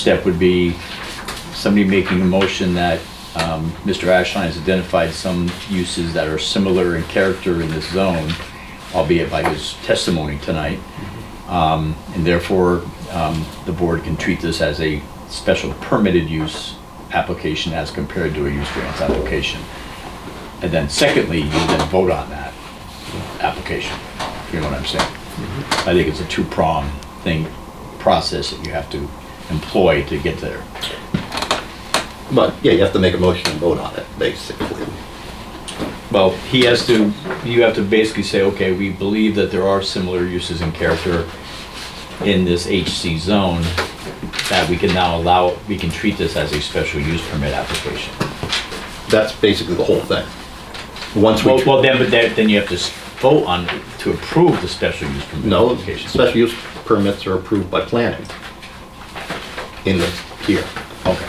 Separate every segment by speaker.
Speaker 1: step would be somebody making a motion that um, Mr. Ashline has identified some uses that are similar in character in this zone, albeit by his testimony tonight. Um, And therefore, um, the board can treat this as a special permitted use application as compared to a use variance application. And then secondly, you then vote on that application, if you know what I'm saying. I think it's a two-prong thing, process that you have to employ to get there.
Speaker 2: But, yeah, you have to make a motion and vote on it, basically.
Speaker 1: Well, he has to, you have to basically say, okay, we believe that there are similar uses in character in this HC zone, that we can now allow, we can treat this as a special use permit application.
Speaker 2: That's basically the whole thing. Once
Speaker 1: Well,
Speaker 2: we,
Speaker 1: well, then, but then then you have to s- vote on, to approve the special use permit
Speaker 2: no,
Speaker 1: application.
Speaker 2: special use permits are approved by planning in the, here.
Speaker 1: Okay.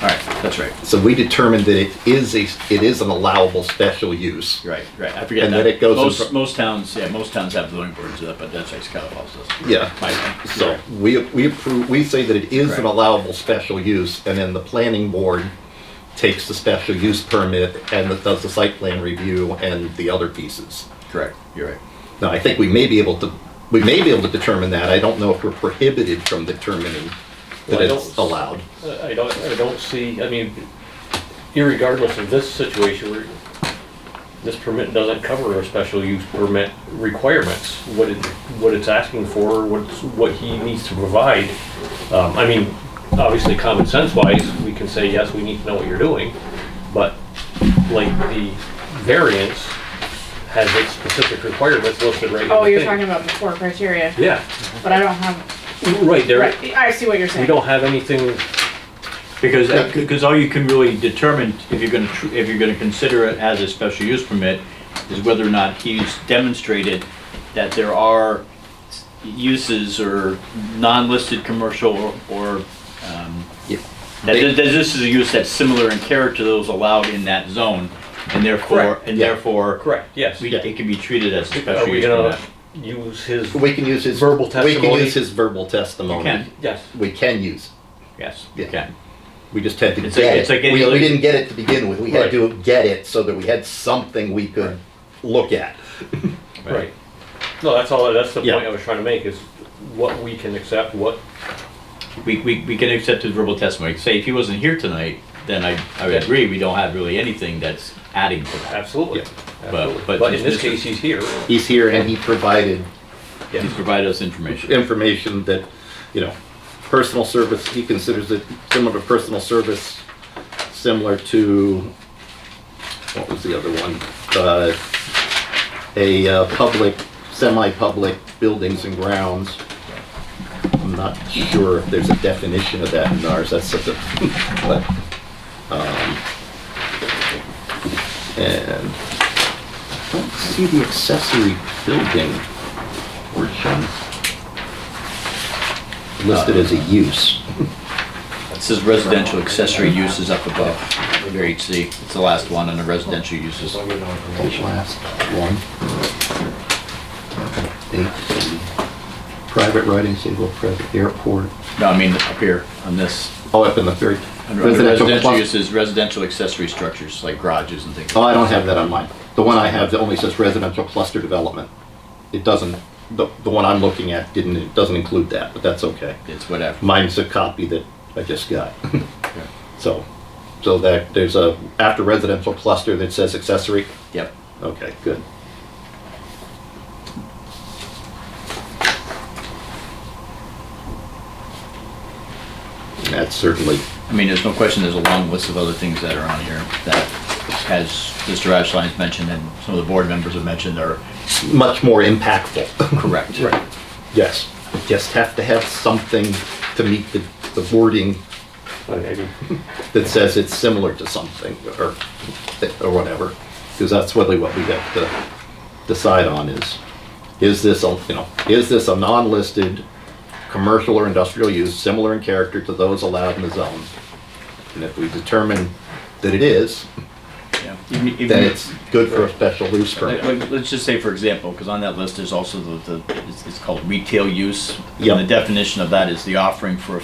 Speaker 1: All right, that's right.
Speaker 2: So we determined that it is a, it is an allowable special use.
Speaker 1: Right, right, I forget
Speaker 2: And
Speaker 1: that.
Speaker 2: then it goes in
Speaker 1: Most,
Speaker 2: front-
Speaker 1: most towns, yeah, most towns have zoning boards, uh, but that's right, Scout Falls does.
Speaker 2: Yeah.
Speaker 1: My town.
Speaker 2: So we, we approve, we say that it is an
Speaker 1: Correct.
Speaker 2: allowable special use, and then the planning board takes the special use permit and it does the site plan review and the other pieces.
Speaker 1: Correct, you're right.
Speaker 2: Now, I think we may be able to, we may be able to determine that. I don't know if we're prohibited from determining that
Speaker 3: Well, I
Speaker 2: it's
Speaker 3: don't-
Speaker 2: allowed.
Speaker 3: I I don't, I don't see, I mean, irregardless of this situation, where this permit doesn't cover a special use permit requirements, what it, what it's asking for, what's, what he needs to provide. Um, I mean, obviously common sense wise, we can say, yes, we need to know what you're doing, but like the variance has its specific requirements listed right in the
Speaker 4: Oh, you're
Speaker 3: thing.
Speaker 4: talking about the four criteria,
Speaker 3: Yeah,
Speaker 4: but I don't have,
Speaker 3: right, there,
Speaker 4: right, I see what you're
Speaker 3: we
Speaker 4: saying.
Speaker 3: don't have anything
Speaker 1: Because, because all you can really determine if you're gonna, tr- if you're gonna consider it as a special use permit is whether or not he's demonstrated that there are uses or non-listed commercial or- or, um,
Speaker 2: Yeah.
Speaker 1: that that this is a use that's similar in character to those allowed in that zone, and therefore,
Speaker 3: Correct.
Speaker 1: and
Speaker 2: Yeah.
Speaker 1: therefore.
Speaker 3: Correct, yes.
Speaker 1: we- It can be treated as a
Speaker 3: Are
Speaker 1: special
Speaker 3: we
Speaker 1: use
Speaker 3: gonna
Speaker 1: permit.
Speaker 3: use his,
Speaker 2: We can use his.
Speaker 3: Verbal
Speaker 2: We can
Speaker 3: testimony?
Speaker 2: use his verbal testimony.
Speaker 1: You can.
Speaker 3: yes,
Speaker 2: We can use. it.
Speaker 1: Yes,
Speaker 2: Yeah.
Speaker 1: okay.
Speaker 2: We just had to
Speaker 1: It's like-
Speaker 2: get
Speaker 1: it's
Speaker 2: it.
Speaker 1: like any
Speaker 2: We,
Speaker 1: other-
Speaker 2: we didn't get it to begin with. We had
Speaker 3: Right.
Speaker 2: to get it so that we had something we could look at.
Speaker 3: right. No, that's all, that's the
Speaker 2: Yeah.
Speaker 3: point I was trying to make, is what we can accept, what,
Speaker 1: we, we, we can accept his verbal testimony. Say if he wasn't here tonight, then I, I would agree, we don't have really anything that's adding to that.
Speaker 3: absolutely.
Speaker 2: Yeah.
Speaker 1: But-
Speaker 3: absolutely.
Speaker 1: but
Speaker 3: But in
Speaker 1: this-
Speaker 3: this case, he's here.
Speaker 2: He's here and he provided
Speaker 1: He's provided us information.
Speaker 2: information that, you know, personal service, he considers it similar to personal service, similar to, what was the other one? Uh, A uh, public, semi-public buildings and grounds. I'm not sure if there's a definition of that in ours, that's such a, but, um, and I don't see the accessory building portion listed as a use.
Speaker 1: It says residential accessory uses up above, under HC. It's the last one under residential uses.
Speaker 2: Last one. Eight, Private riding, single, private airport.
Speaker 1: No, I mean up here on this.
Speaker 2: Oh, up in the third.
Speaker 1: Under under residential
Speaker 2: clus-
Speaker 1: uses, residential accessory structures like garages and things.
Speaker 2: Oh, I don't have that on mine. The one I have that only says residential cluster development. It doesn't, the, the one I'm looking at didn't, it doesn't include that, but that's okay.
Speaker 1: It's whatever.
Speaker 2: Mine's a copy that I just got. So, so that, there's a, after residential cluster that says accessory,
Speaker 1: Yep.
Speaker 2: Okay, good. That's certainly,
Speaker 1: I mean, there's no question, there's a long list of other things that are on here that, as Mr. Ashline's mentioned and some of the board members have mentioned, are
Speaker 2: much more impactful.
Speaker 1: correct.
Speaker 2: Yes, just have to have something to meet the, the wording
Speaker 3: Maybe.
Speaker 2: that says it's similar to something or, or whatever. Because that's really what we have to decide on is, is this, a you know, is this a non-listed commercial or industrial use similar in character to those allowed in the zone? And if we determine that it is,
Speaker 1: Yeah. Even- even-
Speaker 2: then it's good for a special use
Speaker 1: Like,
Speaker 2: permit.
Speaker 1: like, let's just say, for example, because on that list, there's also the, the, it's, it's called retail use.
Speaker 2: Yep.
Speaker 1: And the definition of that is the offering for a